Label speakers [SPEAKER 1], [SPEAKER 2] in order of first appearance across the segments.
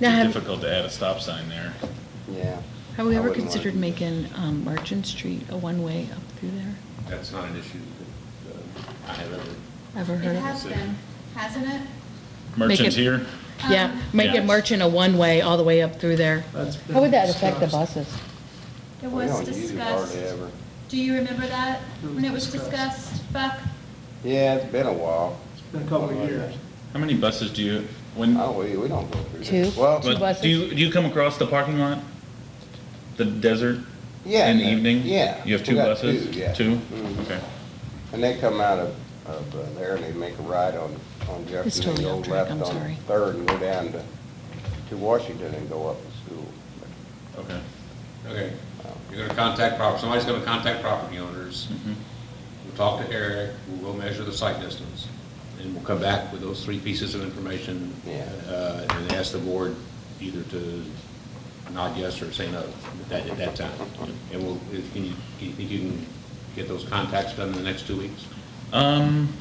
[SPEAKER 1] Now,
[SPEAKER 2] Be
[SPEAKER 1] have-
[SPEAKER 2] difficult to add a stop sign there.
[SPEAKER 3] Yeah.
[SPEAKER 1] Have we
[SPEAKER 3] I
[SPEAKER 1] ever
[SPEAKER 3] wouldn't wanna
[SPEAKER 1] considered
[SPEAKER 3] do that.
[SPEAKER 1] making um, Merchant Street a one-way up through there?
[SPEAKER 4] That's not an issue that uh, I have ever.
[SPEAKER 1] Ever heard
[SPEAKER 5] It
[SPEAKER 1] of it?
[SPEAKER 5] has been, hasn't it?
[SPEAKER 2] Merchants
[SPEAKER 1] it-
[SPEAKER 2] here?
[SPEAKER 1] Yeah, make
[SPEAKER 2] Yeah.
[SPEAKER 1] it Merchant a one-way all the way up through there.
[SPEAKER 6] That's
[SPEAKER 1] How would that
[SPEAKER 6] been
[SPEAKER 1] affect the
[SPEAKER 6] discussed.
[SPEAKER 1] buses?
[SPEAKER 5] It
[SPEAKER 3] We
[SPEAKER 5] was
[SPEAKER 3] don't use it hardly
[SPEAKER 5] discussed.
[SPEAKER 3] ever.
[SPEAKER 5] Do you remember that,
[SPEAKER 6] It was
[SPEAKER 5] when it was
[SPEAKER 6] discussed.
[SPEAKER 5] discussed, Buck?
[SPEAKER 3] Yeah, it's been a while.
[SPEAKER 6] It's been a couple of years.
[SPEAKER 2] How many buses do you, when,
[SPEAKER 3] Oh, we, we don't go through
[SPEAKER 1] Two?
[SPEAKER 3] there. Well,
[SPEAKER 1] Two.
[SPEAKER 2] but
[SPEAKER 1] buses.
[SPEAKER 2] do you, do you come across the parking lot? The desert?
[SPEAKER 3] yeah.
[SPEAKER 2] In the
[SPEAKER 3] no,
[SPEAKER 2] evening?
[SPEAKER 3] Yeah.
[SPEAKER 2] You have
[SPEAKER 3] We
[SPEAKER 2] two
[SPEAKER 3] got
[SPEAKER 2] buses?
[SPEAKER 3] Two, yeah.
[SPEAKER 2] Two?
[SPEAKER 3] Mhm.
[SPEAKER 2] Okay.
[SPEAKER 3] And they come out of, of uh, there and they make a right on, on
[SPEAKER 1] It's
[SPEAKER 3] Jefferson,
[SPEAKER 1] totally
[SPEAKER 3] they go
[SPEAKER 1] off track,
[SPEAKER 3] left
[SPEAKER 1] I'm
[SPEAKER 3] on
[SPEAKER 1] sorry.
[SPEAKER 3] Third and go down to, to Washington and go up to school.
[SPEAKER 2] Okay.
[SPEAKER 4] Okay, you're gonna contact property, somebody's gonna contact property owners.
[SPEAKER 2] Mhm.
[SPEAKER 4] We'll talk to Eric, we'll go measure the site distance, and we'll come back with those three pieces of information.
[SPEAKER 3] Yeah.
[SPEAKER 4] uh, And ask the board either to nod yes or say no at that, at that time. And we'll, if- can you, do you think you can get those contacts done in the next two weeks?
[SPEAKER 2] Um,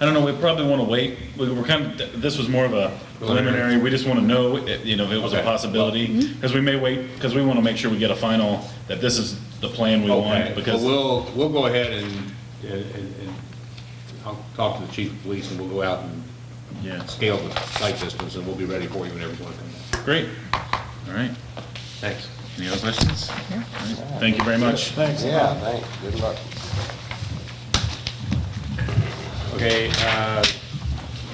[SPEAKER 2] I don't know, we probably want to wait. We- We're kind of, th- this was more of a preliminary, we just want to know, i- you know, if it was a
[SPEAKER 4] Okay.
[SPEAKER 2] possibility.
[SPEAKER 1] Mm-hmm.
[SPEAKER 2] Because we may wait, because we want to make sure we get a final, that this is the plan we want.
[SPEAKER 4] Okay,
[SPEAKER 2] Because
[SPEAKER 4] Well, we'll, we'll go ahead and, and, and and I'll talk to the chief of police and we'll go out and
[SPEAKER 2] Yeah,
[SPEAKER 4] scale the site distance and we'll be ready for you whenever you want to come back.
[SPEAKER 2] great. All right.
[SPEAKER 4] Thanks.
[SPEAKER 2] Any other questions? All right. Thank you very much.
[SPEAKER 6] Thanks. a
[SPEAKER 3] Yeah,
[SPEAKER 6] lot.
[SPEAKER 3] thanks, good luck.
[SPEAKER 4] Okay, uh,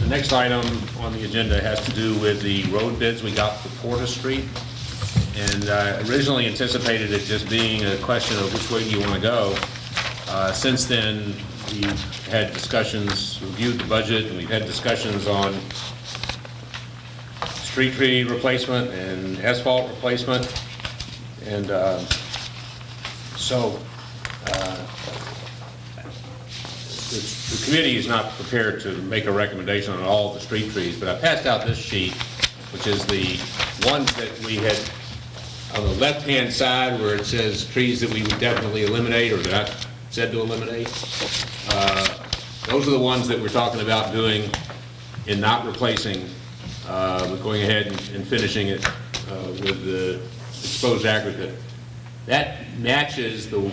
[SPEAKER 4] the next item on the agenda has to do with the road bids we got for Porter Street. And I originally anticipated it just being a question of which way do you want to go. Uh, Since then, we've had discussions, reviewed the budget, and we've had discussions on street tree replacement and asphalt replacement. And uh, so, the the committee is not prepared to make a recommendation on all the street trees, but I passed out this sheet, which is the ones that we had, on the left-hand side where it says trees that we would definitely eliminate or that I said to eliminate. uh, Those are the ones that we're talking about doing and not replacing, uh, but going ahead and and finishing it uh, with the exposed aggregate. That matches the,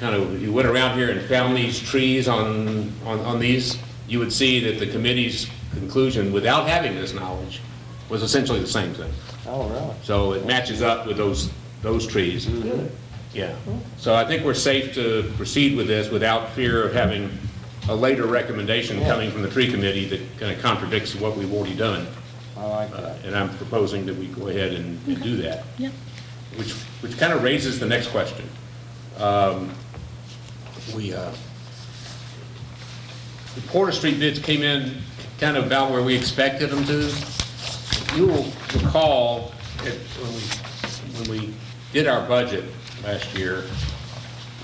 [SPEAKER 4] kind of, if you went around here and found these trees on, on, on these, you would see that the committee's conclusion, without having this knowledge, was essentially the same thing.
[SPEAKER 3] Oh, really?
[SPEAKER 4] So it matches up with those, those trees. Yeah. So I think we're safe to proceed with this without fear of having a later recommendation coming from the tree committee that kind of contradicts what we've already done.
[SPEAKER 3] I like
[SPEAKER 4] Uh,
[SPEAKER 3] that.
[SPEAKER 4] And I'm proposing that we go ahead and and do that
[SPEAKER 1] Yeah.
[SPEAKER 4] which, which kind of raises the next question. Um, We, uh, the Porter Street bids came in kind of about where we expected them to. You will recall, that when we, when we did our budget last year,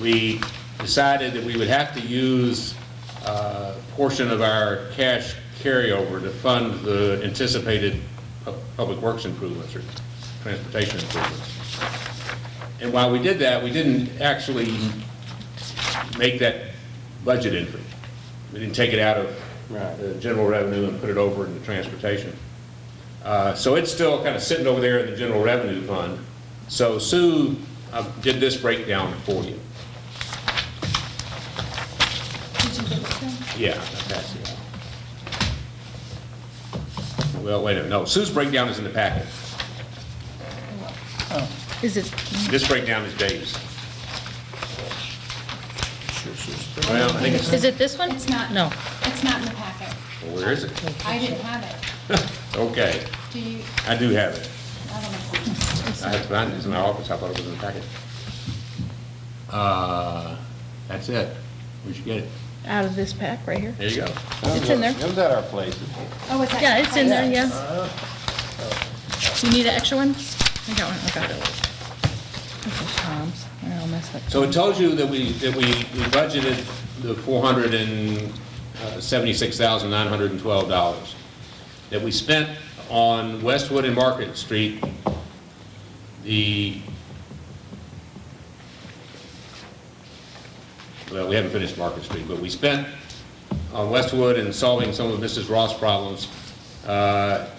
[SPEAKER 4] we decided that we would have to use uh, a portion of our cash carryover to fund the anticipated pu- public works improvements or transportation improvements. And while we did that, we didn't actually make that budget entry. We didn't take it out of
[SPEAKER 3] Right.
[SPEAKER 4] the general revenue and put it over into transportation. Uh, So it's still kind of sitting over there in the general revenue fund. So Sue uh, did this breakdown for you.
[SPEAKER 5] Did you get them?
[SPEAKER 4] Yeah, I passed it out. Well, wait a minute, no, Sue's breakdown is in the packet.
[SPEAKER 1] Is it,
[SPEAKER 4] This breakdown is Dave's. Well, I think it's,
[SPEAKER 1] is it this one?
[SPEAKER 5] It's not.
[SPEAKER 1] No.
[SPEAKER 5] It's not in the packet.
[SPEAKER 4] where is it?
[SPEAKER 5] I didn't have it.
[SPEAKER 4] Okay,
[SPEAKER 5] Do you,
[SPEAKER 4] I do have it.
[SPEAKER 5] I don't know.
[SPEAKER 4] I had to find it, it's in my office, I thought it was in the packet. Uh, That's it, we should get it,
[SPEAKER 1] Out of this pack right here?
[SPEAKER 4] there you go.
[SPEAKER 1] It's in there.
[SPEAKER 3] It was at our place.
[SPEAKER 5] Oh, it's that?
[SPEAKER 1] Yeah, it's in there, yeah. You need an extra one? I got one, okay. This is Tom's. I almost messed
[SPEAKER 4] So it tells you that we, that we we budgeted the $476,912 that we spent on Westwood and Market Street, the, well, we haven't finished Market Street, but we spent on Westwood and solving some of Mrs. Ross' problems, uh,